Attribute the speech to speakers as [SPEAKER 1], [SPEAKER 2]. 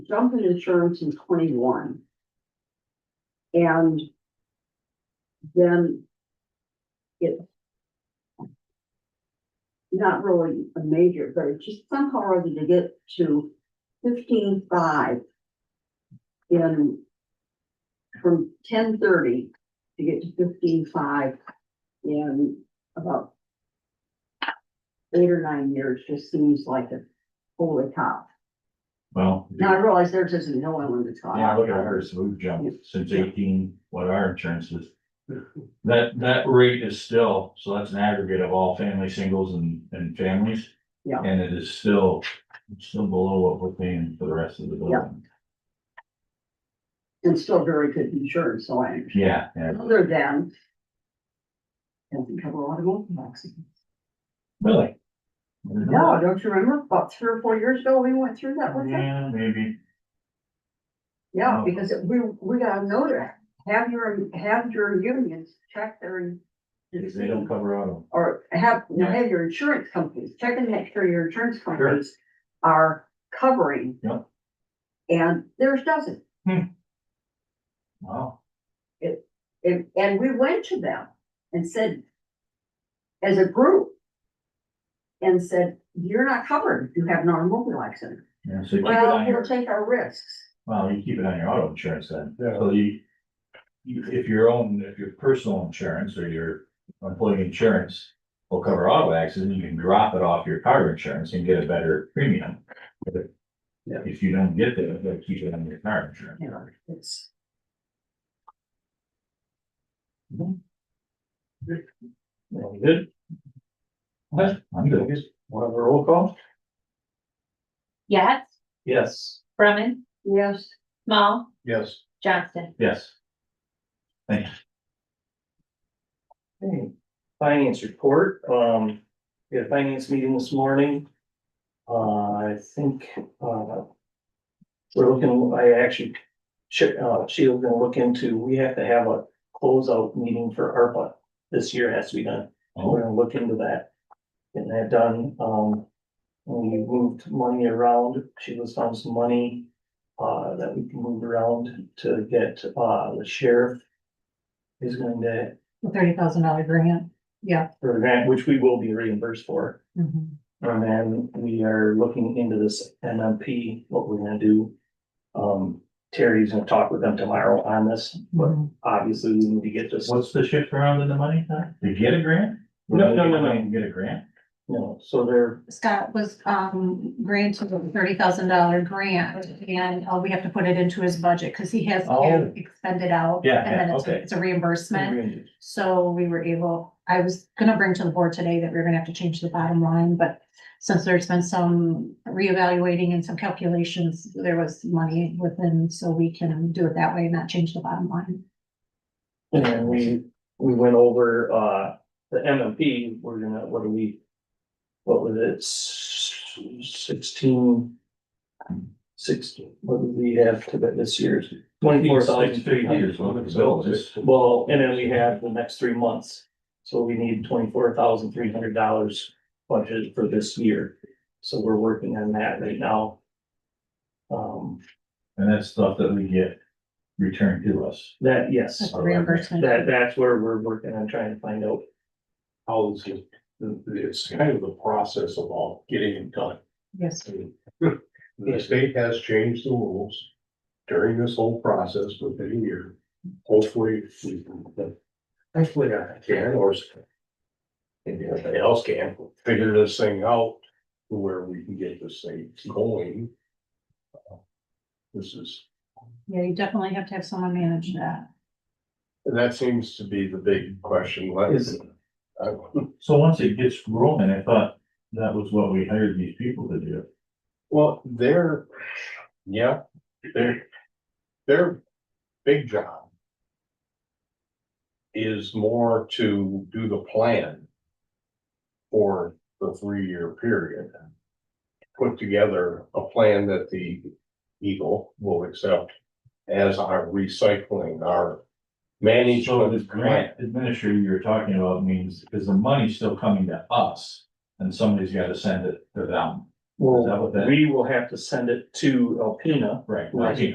[SPEAKER 1] jump in insurance in twenty-one. And then it's not really a major, but it's just somehow or other to get to fifteen-five in from ten-thirty to get to fifteen-five in about eight or nine years just seems like a holy cow.
[SPEAKER 2] Well,
[SPEAKER 1] Now I realize theirs isn't no one that's gone.
[SPEAKER 2] yeah, look at ours, we've jumped since eighteen, what our insurance is. That, that rate is still, so that's an aggregate of all family singles and, and families.
[SPEAKER 1] Yeah.
[SPEAKER 2] And it is still, it's still below what we're paying for the rest of the building.
[SPEAKER 1] And still very good insurance, so I understand.
[SPEAKER 2] Yeah, yeah,
[SPEAKER 1] Other than. Doesn't cover a lot of automobile accidents.
[SPEAKER 2] really. Uh-huh.
[SPEAKER 1] No, don't you remember about three or four years ago, we went through that with them?
[SPEAKER 2] Yeah, Oh. maybe,
[SPEAKER 1] Yeah,
[SPEAKER 2] No.
[SPEAKER 1] because it- we, we gotta know that. Have your, have your unions check their.
[SPEAKER 2] because they don't cover auto.
[SPEAKER 1] Or have, no,
[SPEAKER 2] Yeah.
[SPEAKER 1] have your insurance companies, check and make sure your insurance companies are covering.
[SPEAKER 2] Yep.
[SPEAKER 1] And theirs doesn't.
[SPEAKER 2] Wow,
[SPEAKER 1] And, and we went to them and said, as a group, and said, you're not covered if you have an automobile accident.
[SPEAKER 2] yeah, so you keep it
[SPEAKER 1] Well,
[SPEAKER 2] on
[SPEAKER 1] we'll
[SPEAKER 2] your,
[SPEAKER 1] take our risks.
[SPEAKER 2] well, you keep it on your auto insurance then,
[SPEAKER 3] Yeah.
[SPEAKER 2] so you. You, if your own, if your personal insurance or your employee insurance will cover auto accidents, you can drop it off your car insurance and get a better premium. But
[SPEAKER 3] Yeah.
[SPEAKER 2] If you don't get that, then keep it on your car insurance.
[SPEAKER 1] You know, it's.
[SPEAKER 2] Well, Good. What? I'm good.
[SPEAKER 3] We'll have a roll call?
[SPEAKER 4] Yes,
[SPEAKER 3] Yes.
[SPEAKER 4] Brumman,
[SPEAKER 1] Yes,
[SPEAKER 4] Small,
[SPEAKER 3] Yes.
[SPEAKER 4] Johnston.
[SPEAKER 2] Yes. Thanks.
[SPEAKER 3] Okay, finance report, um, we had a finance meeting this morning. Uh, I think, uh. We're looking, I actually, she, uh, she was gonna look into, we have to have a closeout meeting for ARPA. This year has to be done,
[SPEAKER 2] Oh,
[SPEAKER 3] we're gonna look into that. Getting that done, um, when we moved money around, she was found some money. Uh, that we can move around to get, uh, the sheriff. Is going to
[SPEAKER 4] Thirty thousand dollar grant, yeah. Mm-hmm.
[SPEAKER 3] for that, which we will be reimbursed for. And then we are looking into this MMP, what we're gonna do. Um, Terry's gonna talk with them tomorrow on this, but
[SPEAKER 4] Mm-hmm.
[SPEAKER 3] obviously we need to get this,
[SPEAKER 2] what's the shift around in the money then? To get a grant?
[SPEAKER 3] No, no, no, no.
[SPEAKER 2] You Get a grant?
[SPEAKER 3] you know, so they're,
[SPEAKER 4] Scott was, um, granted a thirty thousand dollar grant and, uh, we have to put it into his budget because he has
[SPEAKER 2] Oh.
[SPEAKER 4] to expend it out.
[SPEAKER 2] Yeah,
[SPEAKER 4] And then
[SPEAKER 2] yeah,
[SPEAKER 4] it's,
[SPEAKER 2] okay. Mm-hmm.
[SPEAKER 4] it's a reimbursement. So we were able, I was gonna bring to the board today that we are gonna have to change the bottom line, but since there's been some reevaluating and some calculations, there was money within, so we can do it that way and not change the bottom line.
[SPEAKER 3] and then we, we went over, uh, the MMP, we're gonna, what do we? What was it, S- sixteen? Sixteen, what did we have to bet this year's? Twenty-four thousand three hundred. Well, and then we have the next three months, so we need twenty-four thousand three hundred dollars budgeted for this year. So we're working on that right now. Um,
[SPEAKER 2] And that's stuff that we get returned to us.
[SPEAKER 3] that, yes,
[SPEAKER 4] That's the reimbursement.
[SPEAKER 3] that, that's where we're working on trying to find out.
[SPEAKER 5] how this is, it's kind of the process of all getting it done.
[SPEAKER 4] Yes.
[SPEAKER 5] The state has changed the rules during this whole process within a year. Hopefully, we can, hopefully I can, or maybe somebody else can, figure this thing out to where we can get this thing going. Uh, This is,
[SPEAKER 4] Yeah, you definitely have to have someone manage that.
[SPEAKER 5] and that seems to be the big question. What
[SPEAKER 3] Is-
[SPEAKER 5] I-
[SPEAKER 2] So once it gets rolling, I thought that was what we hired these people to do.
[SPEAKER 5] Well, their, yeah, their, their big job is more to do the plan for the three-year period. Put together a plan that the Eagle will accept as our recycling, our
[SPEAKER 2] So this
[SPEAKER 5] management grant.
[SPEAKER 2] grant administrator you're talking about means, because the money's still coming to us, and somebody's gotta send it to them. that
[SPEAKER 3] Well,
[SPEAKER 2] what that-
[SPEAKER 3] we will have to send it to Alpena
[SPEAKER 2] Right.
[SPEAKER 3] Right.